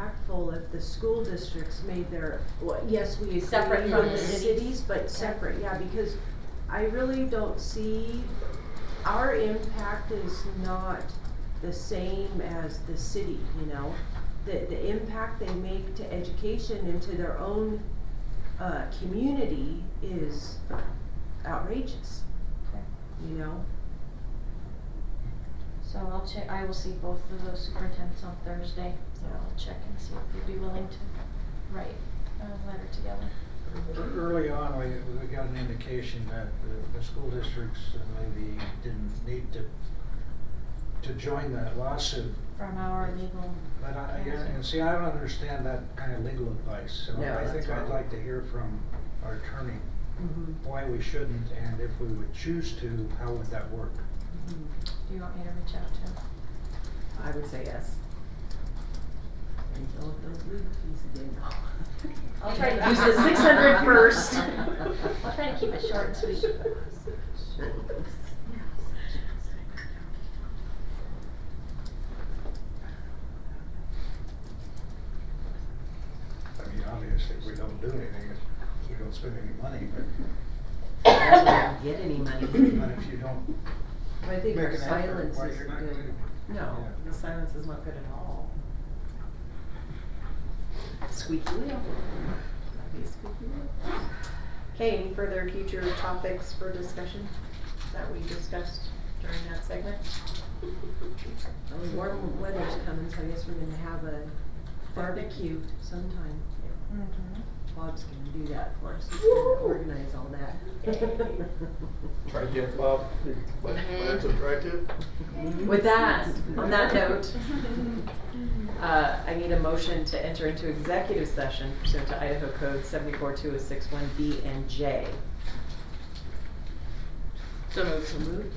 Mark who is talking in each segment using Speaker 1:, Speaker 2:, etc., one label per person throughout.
Speaker 1: impactful if the school districts made their, well, yes, we
Speaker 2: Separate
Speaker 1: agree
Speaker 2: from
Speaker 1: from the
Speaker 2: the city.
Speaker 1: cities, but separate, yeah, because I really don't see, our impact is not the same as the city, you know? The, the impact they make to education and to their own, uh, community is outrageous, you know?
Speaker 2: So I'll check, I will see both of those superintendents on Thursday, so
Speaker 1: Yeah.
Speaker 2: I'll check and see if they'd be willing to write a letter together.
Speaker 3: Early on, we, we got an indication that the, the school districts maybe didn't need to, to join that lawsuit.
Speaker 2: From our legal.
Speaker 3: But I, yeah,
Speaker 2: counsel.
Speaker 3: and see, I don't understand that kind of legal advice, so
Speaker 1: No,
Speaker 3: I
Speaker 1: that's
Speaker 3: think I'd
Speaker 1: wrong.
Speaker 3: like to hear from our attorney
Speaker 1: Mm-hmm.
Speaker 3: why we shouldn't, and if we would choose to, how would that work?
Speaker 2: Do you want me to reach out to him?
Speaker 4: I would say yes. Until those legal fees again.
Speaker 2: I'll try to.
Speaker 4: You said 600 first.
Speaker 2: I'll try to keep it short and sweet.
Speaker 3: I mean, obviously, we don't do anything, if we don't spend any money, but,
Speaker 4: Get any
Speaker 3: but
Speaker 4: money.
Speaker 3: if you don't
Speaker 5: I
Speaker 3: make
Speaker 5: think
Speaker 3: an
Speaker 5: our
Speaker 3: effort,
Speaker 5: silence
Speaker 3: why
Speaker 5: is
Speaker 3: you're
Speaker 5: good.
Speaker 3: not gonna-
Speaker 4: No, the silence is not good at all. Squeaky wheel. That'd be a squeaky wheel.
Speaker 5: Okay, any further future topics for discussion that we discussed during that segment?
Speaker 1: I mean, warm weather's coming, so I guess we're gonna have a barbecue sometime.
Speaker 2: Mhm.
Speaker 1: Bob's gonna do that for us, he's gonna organize all that.
Speaker 6: Try to, Bob, but that's a try to.
Speaker 4: With that, on that note, uh, I need a motion to enter into executive session pursuant to Idaho Code seventy-four two oh six one B and J.
Speaker 7: So moved.
Speaker 4: So moved.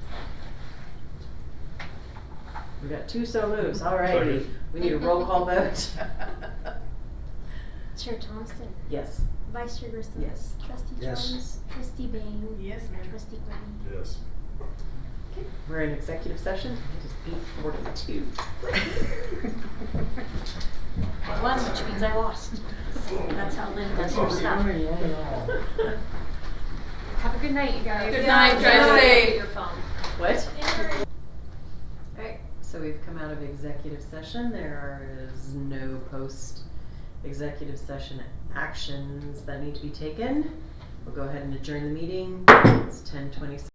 Speaker 4: We got two so moves, all righty.
Speaker 6: Second.
Speaker 4: We need a roll call vote.
Speaker 8: Chair Thompson,
Speaker 4: Yes.
Speaker 8: Vice Chair Grissom.
Speaker 4: Yes.
Speaker 8: Trustee
Speaker 3: Yes.
Speaker 8: Jones, Trustee Bain.
Speaker 7: Yes, ma'am.
Speaker 8: Trustee Glenn.
Speaker 6: Yes.
Speaker 4: We're in executive session. It is eight forty-two.
Speaker 2: I won, which means I lost. That's how Lynn does her stuff. Have a good night, you guys.
Speaker 7: Good night, drive safe.
Speaker 4: What? Alright, so we've come out of executive session. There is no post executive session actions that need to be taken. We'll go ahead and adjourn the meeting. It's ten twenty-six.